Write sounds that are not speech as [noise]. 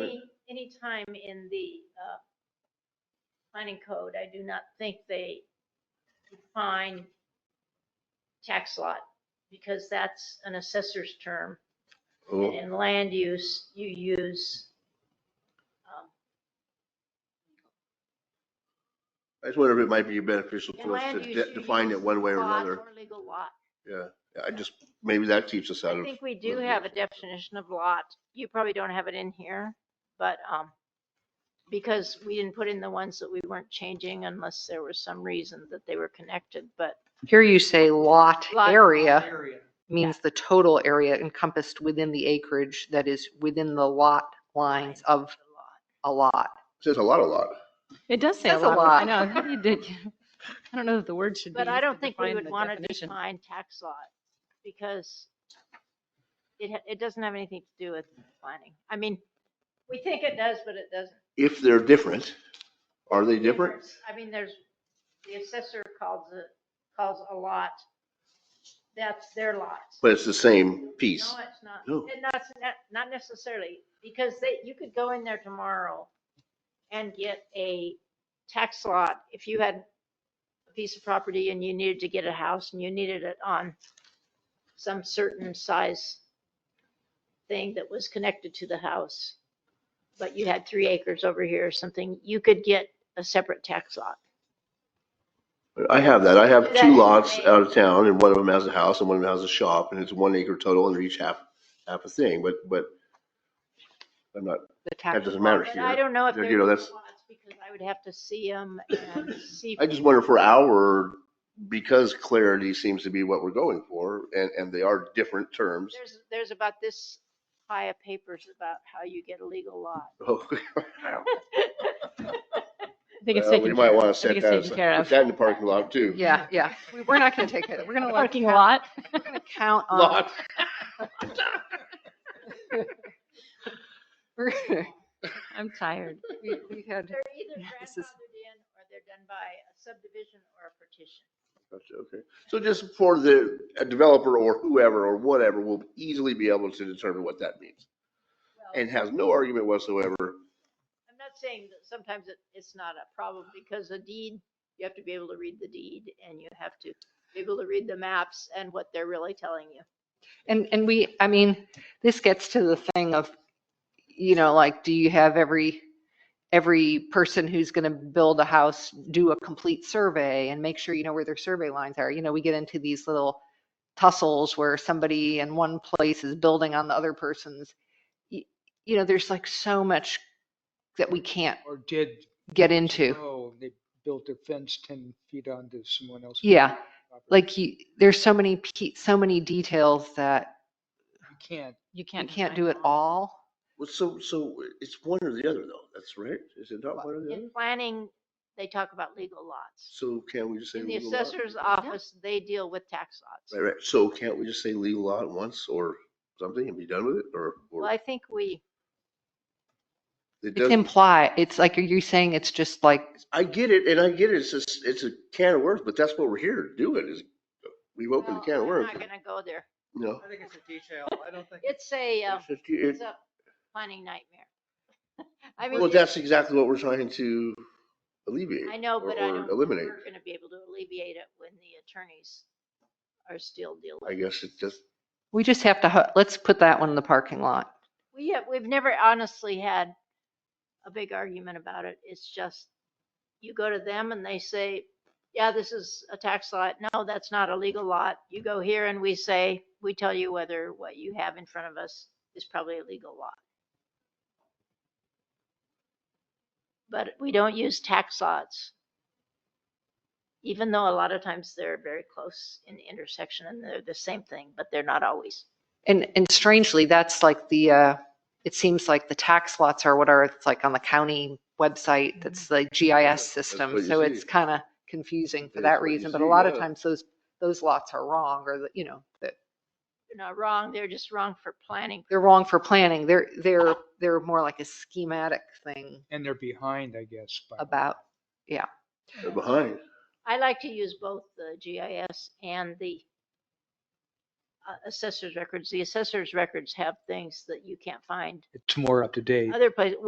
Any, any time in the uh, planning code, I do not think they define tax lot because that's an assessor's term. And Oh, in land use, you use, um, I just wonder if it might be beneficial in to us to land use. de- you define it use one way or lot another. legal lot. Yeah, I just, maybe that keeps us out I of. think we do have a definition of lot. You probably don't have it in here, but, um, because we didn't put in the ones that we weren't changing unless there was some reason that they were connected, but Here you say lot Lot. area area. means the total area encompassed within the acreage that is within the lot lines of a lot. Says a lot, a lot. It does say a That's a lot. I lot. know. I think you did- I don't know that the word should be. But I used don't to think we define would the want to definition. define tax lot because it, ha- it doesn't have anything to do with planning. I mean, we think it does, but it doesn't. If they're different, are they different? I mean, there's, the assessor calls it, calls a lot, that's their lot. But it's the same piece. No, it's not. No. And Not, not- not necessarily, because they, you could go in there tomorrow and get a tax lot. If you had a piece of property and you needed to get a house and you needed it on some certain size thing that was connected to the house, but you had three acres over here or something, you could get a separate tax lot. I have that. I have That two is lots amazing. out of town and one of them has a house and one of them has a shop and it's one acre total and they're each half, half a thing, but, but I'm not, The tax that doesn't matter But I here. don't know if You they're know, lots that's- because I would have to see them and see. I just wonder for our, because clarity seems to be what we're going for and, and they are different terms. [laughs] There's, there's about this pile of papers about how you get a legal lot. I think it's Well, taken. We might care- want I to set think it's that, taken care aside. of. put that in the parking lot too. Yeah, yeah. We- We're not going to take it. We're [laughs] going to let. Parking count- lot. we're gonna Count on. Lot. we're- I'm tired. [laughs] we- we had- They're either This is- grandfathered in or they're done by a subdivision or a partition. Gotcha, Okay, so just for the a developer or whoever or whatever will easily be able to determine what that means Well, and has no argument whatsoever. I'm not saying that sometimes it, it's not a problem because a deed, you have to be able to read the deed and you have to be able to read the maps and what they're really telling you. And, and we, I mean, this gets to the thing of, you know, like, do you have every, every person who's going to build a house do a complete survey and make sure you know where their survey lines are? You know, we get into these little tussles where somebody in one place is building on the other person's. Y- You know, there's like so much that we can't Or did. get into. Oh, they built a fence ten feet onto someone else's. Yeah, property. Like, you, there's so many, pe- so many details that You can't. You you can't. can't define do it all. Well, so, so it's one or the other though, that's right? Is it not one or the other? In planning, they talk about legal lots. So can we just say? In the legal lot? assessor's office, they deal with tax Right, lots. right, so can't we just say legal lot once or something and be done with it or? or Well, I think we, it It's doesn't- imply, it's like, are you saying it's just like, I get it and I get it, it's just, it's a can of worms, but that's what we're here to do it is, uh, we've opened well, the can of I'm worms, not gonna go there. you know? I think it's a detail. I don't think. It's a, um, It's just- it- It's a planning nightmare. [laughs] I mean, Well, that's exactly what we're trying to alleviate. I know, or- but I or don't, think Eliminate. we're gonna be able to alleviate it when the attorneys are still dealing. I guess it just, we just have to, hu- let's put that one in the parking lot. We have, we've never honestly had a big argument about it. It's just, you go to them and they say, yeah, this is a tax lot. No, that's not a legal lot. You go here and we say, we tell you whether what you have in front of us is probably a legal lot. But we don't use tax lots. Even though a lot of times they're very close in intersection and they're the same thing, but they're not always. And, and strangely, that's like the, uh, it seems like the tax lots are what are, it's like on the county website, that's the GIS Mm-hmm. that's system. what you So it's see. kind of confusing for It is that what you reason, but see, a lot of yeah. times those, those lots are wrong or, the- you know, that They're not wrong, they're just wrong for planning they're wrong for planning. They're, they're, they're more like a schematic thing And they're behind, I guess. by- about, they're behind. I like to use both the GIS and the uh, assessor's records. The assessor's records have things that you can't find It's more up to date. other places.